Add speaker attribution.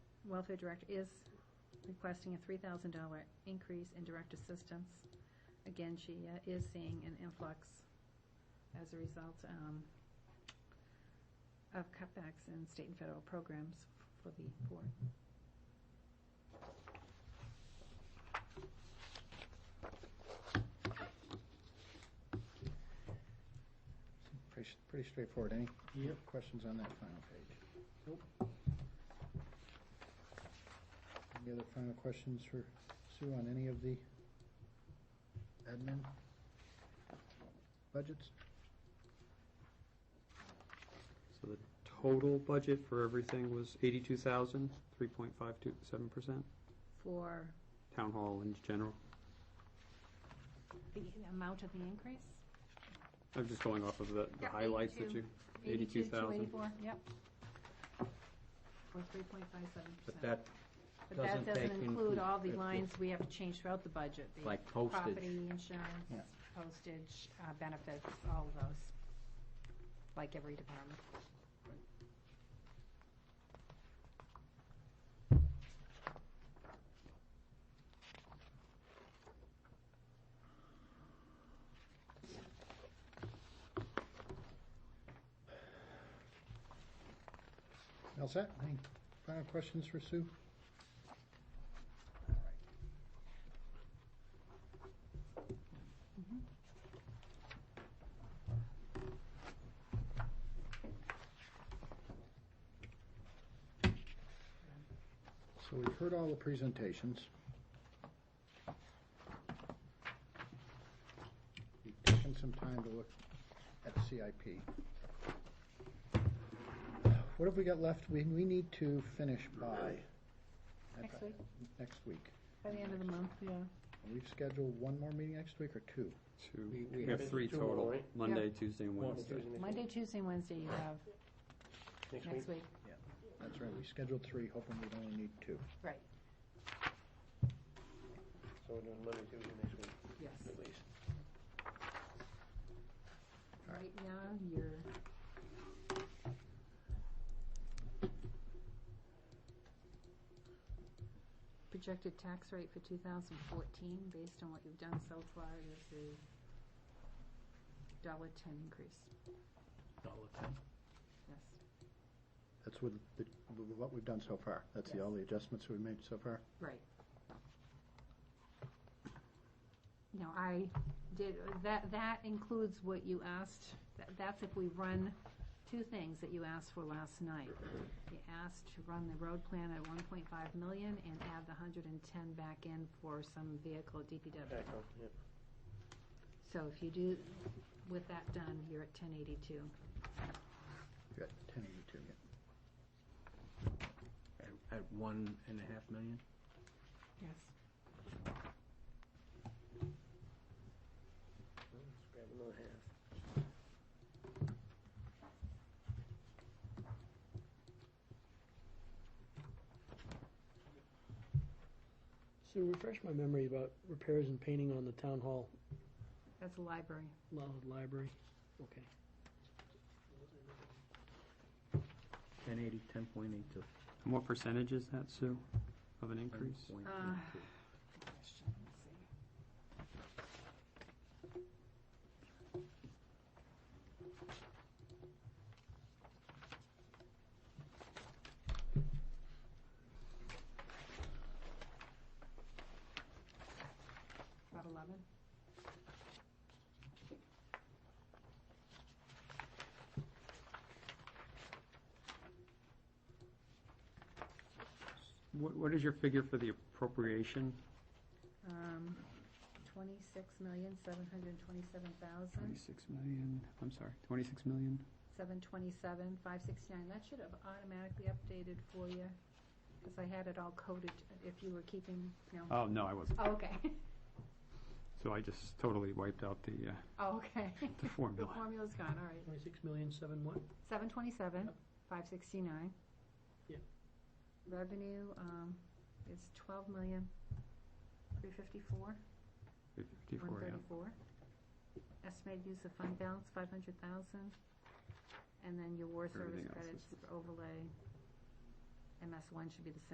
Speaker 1: welfare director is requesting a three thousand dollar increase in direct assistance. Again, she uh, is seeing an influx as a result um, of cutbacks in state and federal programs for the poor.
Speaker 2: Pretty, s- pretty straightforward. Any
Speaker 3: Yep.
Speaker 2: questions on that final page?
Speaker 3: Nope.
Speaker 2: Any other final questions for Sue on any of the admin budgets?
Speaker 4: So the total budget for everything was eighty-two thousand, three point five two, seven percent,
Speaker 1: For
Speaker 4: town hall in general.
Speaker 1: the amount of the increase?
Speaker 4: I'm just going off of the the
Speaker 1: Yeah,
Speaker 4: highlights that
Speaker 1: 82.
Speaker 4: you, eighty-two thousand.
Speaker 1: 82,284, yep. Or three point five seven percent.
Speaker 5: But that,
Speaker 1: But that
Speaker 5: doesn't
Speaker 1: doesn't
Speaker 5: take
Speaker 1: include all the
Speaker 5: into-
Speaker 1: lines we have to change throughout the budget. the
Speaker 5: like postage,
Speaker 1: Property insurance,
Speaker 2: Yeah.
Speaker 1: postage, uh, benefits, all of those, like every department.
Speaker 2: All set? Any final questions for Sue? So we've heard all the presentations. We've taken some time to look at CIP. What have we got left? We, we need to finish by.
Speaker 1: Next week,
Speaker 2: Next week.
Speaker 1: by the end of the month, yeah.
Speaker 2: And We've scheduled one more meeting next week or two?
Speaker 4: Two,
Speaker 3: We- we
Speaker 4: we have
Speaker 3: have
Speaker 4: three
Speaker 3: two more,
Speaker 4: total,
Speaker 3: right?
Speaker 4: Monday, Tuesday, and
Speaker 3: One,
Speaker 4: Wednesday.
Speaker 3: Tuesday, next
Speaker 1: Monday, Tuesday, and Wednesday you have,
Speaker 3: week.
Speaker 1: next week,
Speaker 2: That's right, we scheduled three, hoping we'd only need two.
Speaker 1: right,
Speaker 3: So we're doing Monday, Tuesday, next week,
Speaker 1: yes.
Speaker 3: at least.
Speaker 1: Right now, you're, projected tax rate for 2014, based on what you've done so far, is a dollar 10 increase, yes.
Speaker 2: That's with, the- with what we've done so far. That's the, all the adjustments we've made so far.
Speaker 1: Right. You know, I did, that, that includes what you asked, that- that's if we run two things that you asked for last night. You asked to run the road plan at one point five million and add the hundred and ten back in for some vehicle at DPW.
Speaker 3: Back on, yep.
Speaker 1: So if you do, with that done, you're at ten eighty-two.
Speaker 2: Good, ten eighty-two, yeah.
Speaker 5: at at one and a half million?
Speaker 1: Yes.
Speaker 3: Let's grab another half.
Speaker 6: So refresh my memory about repairs and painting on the town hall
Speaker 1: That's the library.
Speaker 6: li- library. Okay.
Speaker 5: Ten eighty, ten point eight two.
Speaker 4: And what percentage is that, Sue, of an increase?
Speaker 1: Uh, About eleven?
Speaker 4: What, what is your figure for the appropriation?
Speaker 1: Um, twenty-six million, seven hundred and twenty-seven thousand,
Speaker 4: Twenty-six million, I'm sorry, twenty-six million?
Speaker 1: seven twenty-seven, five sixty-nine. That should have automatically updated for you, because I had it all coded, if you were keeping, no.
Speaker 4: Oh, no, I wasn't.
Speaker 1: Oh, Okay,
Speaker 4: So I just totally wiped out the, uh,
Speaker 1: oh, okay.
Speaker 4: the
Speaker 1: The
Speaker 4: formula.
Speaker 1: formula's gone, all right.
Speaker 6: Twenty-six million, seven what?
Speaker 1: Seven twenty-seven, five sixty-nine.
Speaker 6: Yeah.
Speaker 1: Revenue, um, is twelve million, three fifty-four, one
Speaker 4: 54, yeah.
Speaker 1: thirty-four. Estimated use of fund balance, five hundred thousand. And then your war service
Speaker 4: Everything else
Speaker 1: credits,
Speaker 4: is-
Speaker 1: overlay, MS one should be the same.